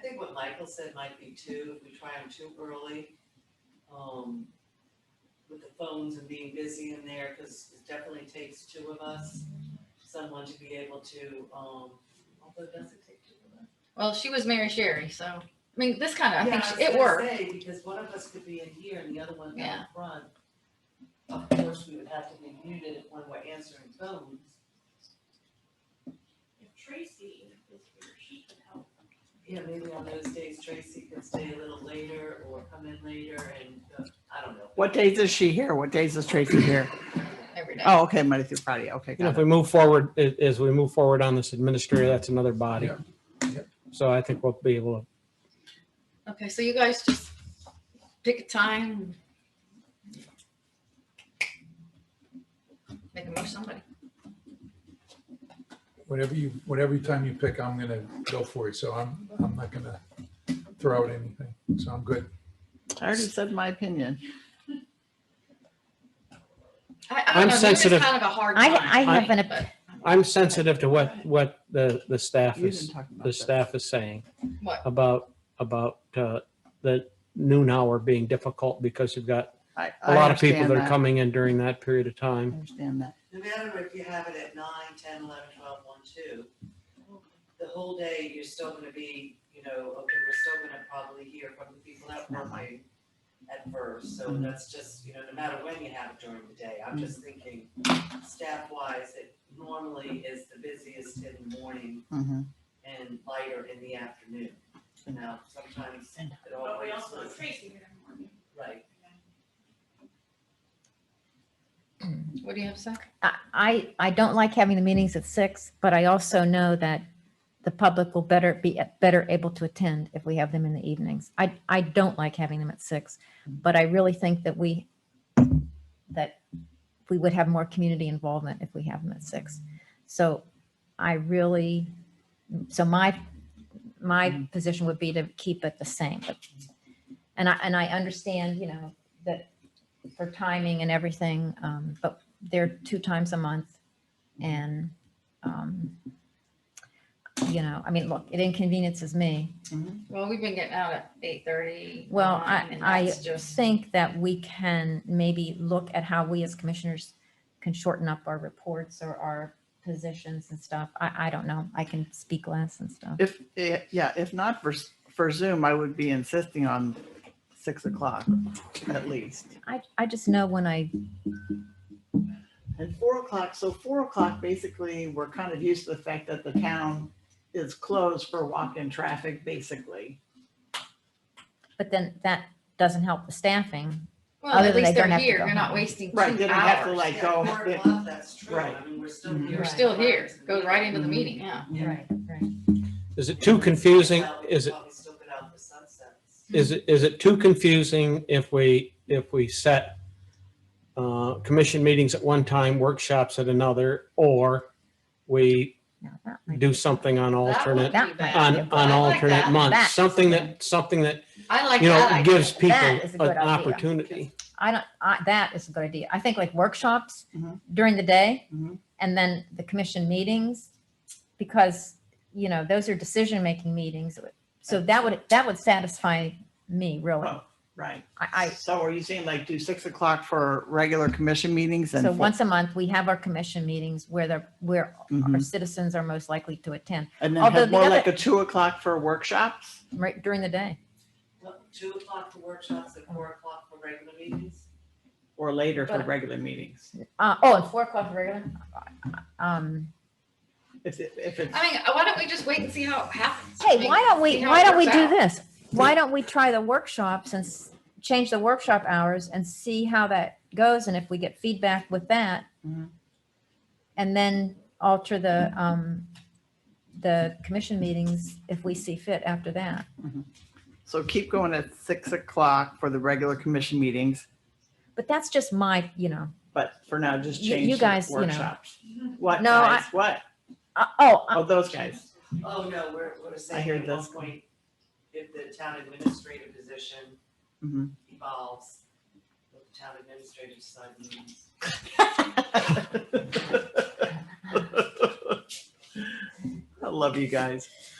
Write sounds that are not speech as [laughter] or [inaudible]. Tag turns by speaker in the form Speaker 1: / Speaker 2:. Speaker 1: think what Michael said might be too, if we try them too early, um, with the phones and being busy in there, cause it definitely takes two of us, someone to be able to, um, although does it take two of us?
Speaker 2: Well, she was Mary Sherry, so I mean, this kind of I think she,
Speaker 1: Yeah, I
Speaker 2: it
Speaker 1: was gonna
Speaker 2: worked.
Speaker 1: say, because one of us could be in here and the other one
Speaker 2: Yeah.
Speaker 1: down front. Of course, we would have to be muted if one were answering phones,
Speaker 3: If Tracy is here, she could help.
Speaker 1: Yeah, maybe on those days Tracy could stay a little later or come in later and, uh, I don't know.
Speaker 4: What days is she here? What days is Tracy
Speaker 5: [coughs]
Speaker 4: here?
Speaker 2: every day.
Speaker 4: Oh, okay, Monday through Friday. Okay,
Speaker 5: You know,
Speaker 4: got
Speaker 5: if
Speaker 4: it.
Speaker 5: we move forward, a- as we move forward on this administrator, that's another body. So I think we'll be able to,
Speaker 2: Okay, so you guys just pick a time. Make a motion, somebody.
Speaker 6: Whatever you, whatever time you pick, I'm gonna go for it, so I'm, I'm not gonna throw out anything, so I'm good.
Speaker 4: I already said my opinion.
Speaker 2: I, I don't
Speaker 5: I'm
Speaker 2: know.
Speaker 5: sensitive.
Speaker 2: It's kind of a hard
Speaker 7: I,
Speaker 2: time.
Speaker 7: I have an, op-
Speaker 2: but
Speaker 5: I'm sensitive to what, what the, the staff
Speaker 4: You didn't
Speaker 5: is,
Speaker 4: talk about
Speaker 5: the
Speaker 4: this.
Speaker 5: staff is saying
Speaker 2: what?
Speaker 5: about, about, uh, the noon hour being difficult because you've got
Speaker 4: I-
Speaker 5: a
Speaker 4: I
Speaker 5: lot of people
Speaker 4: understand
Speaker 5: that
Speaker 4: that.
Speaker 5: are coming in during that period of
Speaker 4: I
Speaker 5: time.
Speaker 4: Understand that.
Speaker 1: No matter if you have it at nine, ten, eleven, twelve, one, two, the whole day, you're still gonna be, you know, okay, we're still gonna probably hear from the people that
Speaker 4: Mm-hmm.
Speaker 1: were working at first, so
Speaker 4: Mhm.
Speaker 1: that's just, you know, no matter when you have it during the day, I'm just
Speaker 4: Mm-hmm.
Speaker 1: thinking staff-wise, it normally is the busiest in the morning
Speaker 4: Mhm.
Speaker 1: and lighter in the afternoon. Now, sometimes it
Speaker 3: But we
Speaker 1: always
Speaker 3: also have
Speaker 1: was,
Speaker 3: Tracy here in the morning.
Speaker 1: right,
Speaker 2: What do you have to say?
Speaker 7: I- I, I don't like having the meetings at six, but I also know that the public will better be, better able to attend if we have them in the evenings. I, I don't like having them at six, but I really think that we, that we would have more community involvement if we have them at six. So I really, so my, my position would be to keep it the same. but- And I, and I understand, you know, that for timing and everything, um, but they're two times a month. And, um, you know, I mean, look, it inconveniences me.
Speaker 2: Well, we've been getting out at eight thirty.
Speaker 7: Well, I-
Speaker 2: and
Speaker 7: I
Speaker 2: that's just
Speaker 7: Think that we can maybe look at how we as commissioners can shorten up our reports or our positions and stuff. I, I don't know. I can speak less and stuff.
Speaker 4: If, eh, yeah, if not for, for Zoom, I would be insisting on six o'clock at least.
Speaker 7: I, I just know when I,
Speaker 4: And four o'clock, so four o'clock, basically, we're kind of used to the fact that the town is closed for walk-in traffic, basically.
Speaker 7: but then that doesn't help the staffing.
Speaker 2: well.
Speaker 7: other
Speaker 2: At
Speaker 7: than
Speaker 2: least
Speaker 7: they
Speaker 2: they're
Speaker 7: don't have to
Speaker 2: here.
Speaker 7: go
Speaker 2: You're not
Speaker 7: home.
Speaker 2: wasting two
Speaker 4: Right, they don't have to,
Speaker 2: hours.
Speaker 4: like,
Speaker 1: Yeah,
Speaker 4: go-
Speaker 1: four o'clock, that's true, I
Speaker 4: Right. Mm-hmm.
Speaker 1: mean, we're still
Speaker 4: Mhm.
Speaker 1: here.
Speaker 2: We're
Speaker 1: at
Speaker 2: still
Speaker 1: five.
Speaker 2: here. Goes right into
Speaker 7: Mm-hmm.
Speaker 2: the meeting. Yeah.
Speaker 1: Yeah.
Speaker 7: Right, right.
Speaker 5: Is it too confusing? Is it,
Speaker 1: Probably still been out for sunsets.
Speaker 5: is it, is it too confusing if we, if we set uh, commission meetings at one time, workshops at another, or we
Speaker 7: Now, that might-
Speaker 5: do something on alternate,
Speaker 7: That might be
Speaker 5: on,
Speaker 7: a-
Speaker 5: on
Speaker 2: I like
Speaker 5: alternate
Speaker 2: that.
Speaker 7: That-
Speaker 5: months? Something that, something that,
Speaker 2: I like
Speaker 5: you know,
Speaker 2: that.
Speaker 5: gives people
Speaker 7: That is a
Speaker 5: an
Speaker 7: good idea.
Speaker 5: opportunity.
Speaker 7: I don't, I, that is a good idea. I think like workshops
Speaker 4: Mhm.
Speaker 7: during the day
Speaker 4: Mhm.
Speaker 7: and then the commission meetings, because, you know, those are decision-making meetings. So that would, that would satisfy me really. I,
Speaker 4: Oh, Right.
Speaker 7: I,
Speaker 4: So are you saying like do six o'clock for regular commission meetings and?
Speaker 7: so
Speaker 4: four-
Speaker 7: once a month, we have our commission meetings where the, where our
Speaker 4: Mhm.
Speaker 7: citizens are most likely to attend
Speaker 4: And then
Speaker 7: although
Speaker 4: have
Speaker 7: the
Speaker 4: more
Speaker 7: other-
Speaker 4: like a two o'clock for workshops?
Speaker 7: right during the day.
Speaker 1: Well, Two o'clock for workshops and four o'clock for regular meetings?
Speaker 4: Or later for
Speaker 7: But-
Speaker 4: regular meetings.
Speaker 7: Uh, oh, and four o'clock regular. Um,
Speaker 4: If, it- if it's,
Speaker 2: I mean, why don't we just wait and see how it happens? I
Speaker 7: hey,
Speaker 2: mean,
Speaker 7: why don't
Speaker 2: see
Speaker 7: we,
Speaker 2: how
Speaker 7: why
Speaker 2: it
Speaker 7: don't we
Speaker 2: works
Speaker 7: do
Speaker 2: out.
Speaker 7: this? Why don't we try the workshops and s- change the workshop hours and see how that goes? And if we get feedback with that,
Speaker 4: Mhm.
Speaker 7: and then alter the, um, the commission meetings if we see fit after that.
Speaker 4: so keep going at six o'clock for the regular commission meetings,
Speaker 7: But that's just my, you know,
Speaker 4: but for now, just
Speaker 7: You-
Speaker 4: change
Speaker 7: you
Speaker 4: the
Speaker 7: guys, you know.
Speaker 4: workshops. What
Speaker 7: No, I-
Speaker 4: guys, what?
Speaker 7: uh, oh, uh,
Speaker 4: Oh, those guys. [laughs]
Speaker 1: Oh, no, we're, we're saying
Speaker 4: hear
Speaker 1: at one
Speaker 4: this.
Speaker 1: point, if the town administrator position
Speaker 4: Mhm.
Speaker 1: evolves, what the town administrator side means.
Speaker 4: I love you guys.